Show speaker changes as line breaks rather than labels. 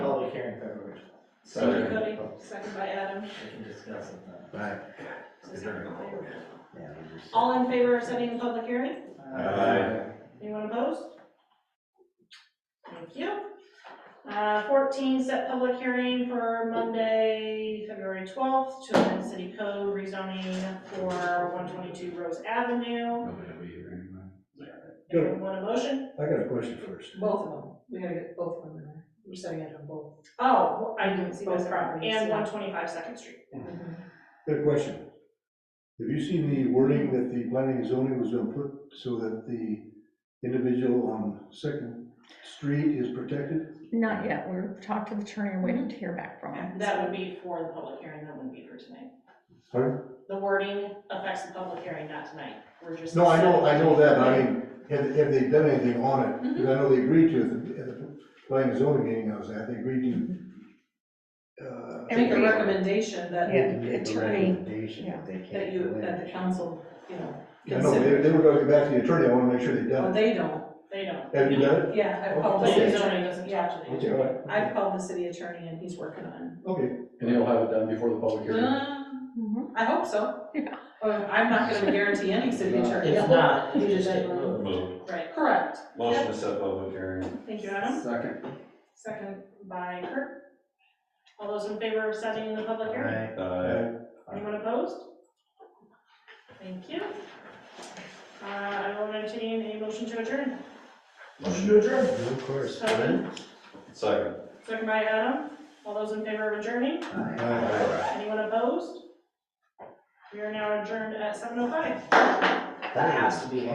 So
Everybody,
everybody,
second by Adam.
we can discuss it then.
Right.
All in favor of setting the public hearing?
Aye.
Anyone opposed? Thank you. Uh, 14, set public hearing for Monday, February 12th, to amend city code rezoning for 122 Rose Avenue.
Nobody will be here anyway.
Good.
Anyone want a motion?
I got a question first.
Both of them, we gotta get both of them in there, we're setting it on both.
Oh, I didn't see this
Both properties,
And
yeah.
125 Second Street.
Good question. Have you seen the wording that the planning and zoning was gonna put so that the individual on Second Street is protected?
Not yet, we're talked to the attorney, and waiting to hear back from him.
Mm-hmm. That would be for the public hearing, that wouldn't be for tonight.
Pardon?
The wording affects the public hearing, not tonight. We're just.
No, I know, I know that, but I mean, have, have they done anything on it?
Mm-hmm.
Because I know they agreed to, it at the- at the planning and zoning meeting I was at, they agreed to. uh,
And
Make a
we-
recommendation that
Yeah,
the
Make the
attorney,
recommendation that they can't
that you,
go in.
that the council, you know,
I know, they,
consider.
they were gonna get back to the attorney, I wanna make sure they
Well,
done
they don't,
They don't.
it. Have you done it?
yeah, I've called the
Planning
city
and
attorney,
zoning doesn't talk to the
Okay, all right.
I've called the city attorney and he's working on.
Okay,
And he'll have it done before the public hearing.
Um,
Mhm.
I hope so.
Yeah.
Well, I'm not gonna guarantee any city attorney.
It's not, you just get moved.
it. Right.
Correct,
Motion to set public hearing.
Thank you, Adam.
Second.
Second by Kurt. All those in favor of setting the public hearing?
Right.
Aye.
Anyone opposed? Thank you. Uh, I will entertain a motion to adjourn.
Motion to adjourn.
Of course.
So-
Glenn?
Second.
Second by Adam. All those in favor of adjourning?
Aye.
Anyone opposed? We are now adjourned at seven oh five.
That has to be